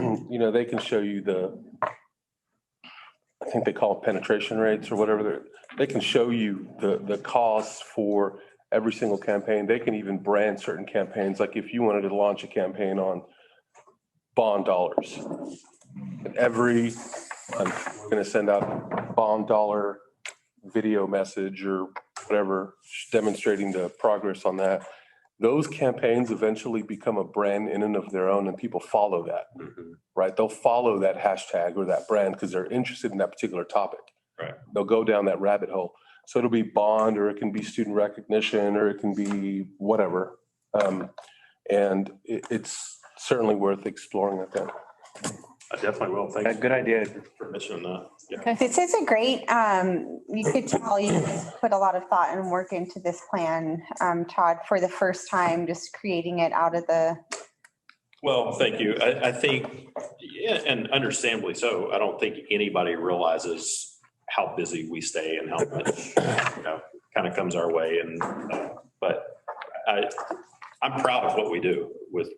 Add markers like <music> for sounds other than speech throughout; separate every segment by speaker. Speaker 1: can, you know, they can show you the, I think they call it penetration rates or whatever. They're They can show you the, the costs for every single campaign. They can even brand certain campaigns. Like if you wanted to launch a campaign on bond dollars. And Every, I'm going to send out bond dollar video message or whatever, demonstrating the progress on that. Those campaigns eventually become a brand in and of their own and people follow that
Speaker 2: Mm-hmm.
Speaker 1: right? They'll follow that hashtag or that brand because they're interested in that particular topic.
Speaker 2: Right.
Speaker 1: They'll go down that rabbit hole. So it'll be bond, or it can be student recognition, or it can be whatever. Um, and it, it's certainly worth exploring. I think.
Speaker 2: I definitely will.
Speaker 3: Yeah,
Speaker 2: Thanks
Speaker 3: Good idea.
Speaker 2: for mentioning that. Yeah.
Speaker 4: This is a great, um, you could tell you put a lot of thought and work into this plan, um, Todd, for the first time, just creating it out of the,
Speaker 2: Well, thank you. I, I think, yeah, and understandably so, I don't think anybody realizes how busy we stay and how much, you know, kind of comes our way and, uh, but I, I'm proud of what we do with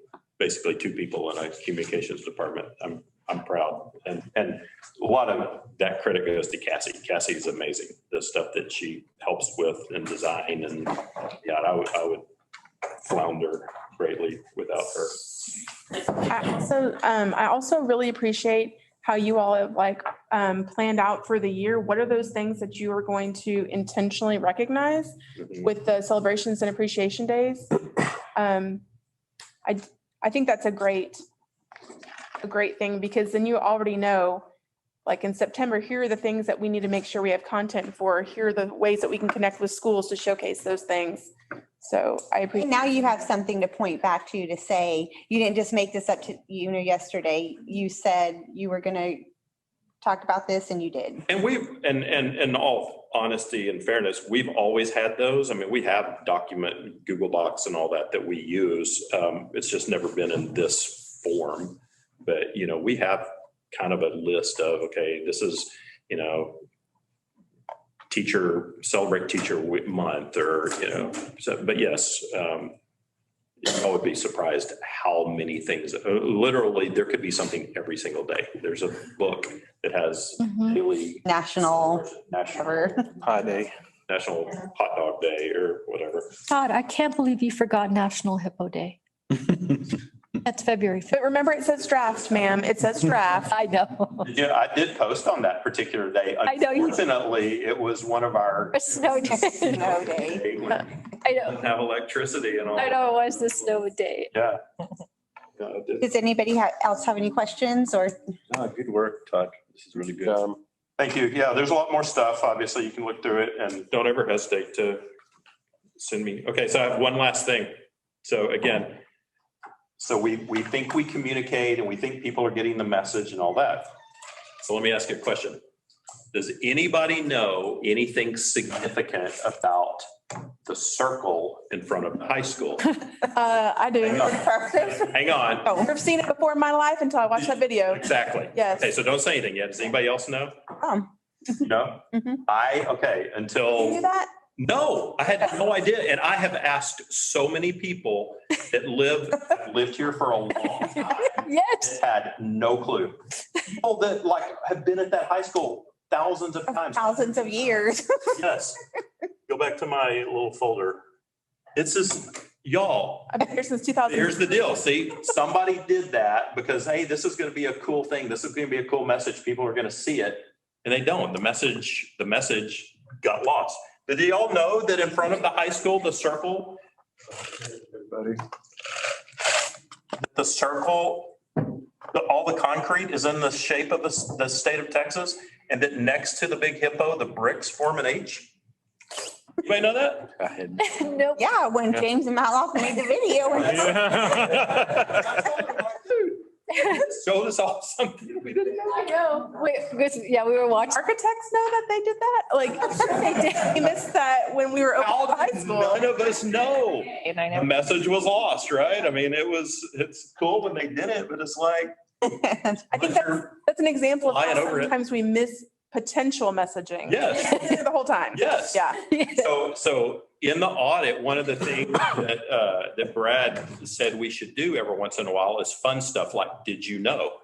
Speaker 2: basically two people in a communications department. I'm, I'm proud. And, and a lot of that credit goes to Cassie. Cassie is amazing. The stuff that she helps with and design and, yeah, I would, I would flounder greatly without her.
Speaker 5: I also, um, I also really appreciate how you all have like, um, planned out for the year. What are those things that you are going to intentionally recognize with the celebrations and appreciation days? Um, I, I think that's a great, a great thing because then you already know, like in September, here are the things that we need to make sure we have content for. Here are the ways that we can connect with schools to showcase those things. So I appreciate.
Speaker 4: now you have something to point back to, to say, you didn't just make this up to, you know, yesterday. You said you were gonna talk about this and you did.
Speaker 2: And we've, and, and, and all honesty and fairness, we've always had those. I mean, we have document, Google Docs and all that that we use. Um, it's just never been in this form. But, you know, we have kind of a list of, okay, this is, you know, teacher, celebrate teacher Week- month or, you know, so, but yes, um, I would be surprised how many things, uh, literally, there could be something every single day. There's a book that has daily
Speaker 4: National,
Speaker 2: national
Speaker 4: whatever.
Speaker 3: Hi, day.
Speaker 2: national hot dog day or whatever.
Speaker 6: Todd, I can't believe you forgot National Hippo Day. That's February. fifth.
Speaker 5: But remember, it says draft, ma'am. It says
Speaker 4: <laughs>
Speaker 5: draft.
Speaker 6: I know.
Speaker 2: Yeah, I did post on that particular day.
Speaker 6: I know you did.
Speaker 2: Unfortunately, it was one of
Speaker 6: <laughs>
Speaker 2: our.
Speaker 6: A snow day.
Speaker 4: Snow day.
Speaker 2: Hey, we didn't
Speaker 6: I know.
Speaker 2: <laughs> Have electricity and all.
Speaker 6: I know it was the snow day.
Speaker 2: Yeah. Yeah, I did.
Speaker 4: Does anybody ha- else have any questions or
Speaker 3: Oh, Good work, Todd. This is really good.
Speaker 1: Um,
Speaker 2: Thank you. Yeah, there's a lot more stuff. Obviously, you can look through it and. Don't ever hesitate to send me. Okay, so I have one last thing. So again. So we, we think we communicate and we think people are getting the message and all that. So let me ask you a question. Does anybody know anything significant about the circle in front of the high
Speaker 4: <laughs>
Speaker 2: school?
Speaker 5: Uh, I do. Oh,
Speaker 2: Hang on. Hang on,
Speaker 5: I've seen it before in my life until I watched that
Speaker 4: Oh.
Speaker 5: video.
Speaker 2: exactly.
Speaker 5: Yes.
Speaker 2: Okay, so don't say anything yet. Does anybody else know?
Speaker 4: Um.
Speaker 2: No?
Speaker 4: Mhm.
Speaker 2: I, okay, until.
Speaker 4: do that?
Speaker 2: No, I had no idea. And I have asked so many people that live, lived here for a long time,
Speaker 6: Yes. <laughs>
Speaker 2: had no clue. People that like have been at that high school thousands of times.
Speaker 4: Thousands of years. <laughs>
Speaker 2: Yes. Go back to my little folder. It's just, y'all,
Speaker 5: I've been here since 2000.
Speaker 2: Here's the deal. See, somebody did that because, hey, this is going to be a cool thing. This is going to be a cool message. People are going to see it. And they don't. The message, the message got lost. Did you all know that in front of the high school, the circle? The circle, the, all the concrete is in the shape of the, s- the state of Texas and that next to the big hippo, the bricks form an H? You may know that?
Speaker 3: I had
Speaker 6: Nope.
Speaker 4: Yeah, when James and Maloff made the video. and-
Speaker 2: <laughs> Showed us all something we didn't know.
Speaker 6: I know. Wait, because- yeah, we were watching.
Speaker 5: Architects know that they did that? Like, <laughs> they did. We missed that when we were
Speaker 2: <laughs> How
Speaker 5: over high
Speaker 2: did
Speaker 5: school.
Speaker 2: None of us know.
Speaker 7: And I
Speaker 2: The
Speaker 7: never,
Speaker 2: message was lost, right? I mean, it was, it's cool when they did it, but it's like.
Speaker 4: <laughs>
Speaker 5: I think that's, that's an example of
Speaker 2: Lying
Speaker 5: how
Speaker 2: over it.
Speaker 5: sometimes we miss potential messaging.
Speaker 2: Yes.
Speaker 5: <laughs> The whole time.
Speaker 2: Yes.
Speaker 5: Yeah.
Speaker 2: So, so in the audit, one of the things that, uh, that Brad said we should do every once in a while is fun stuff like, did you know?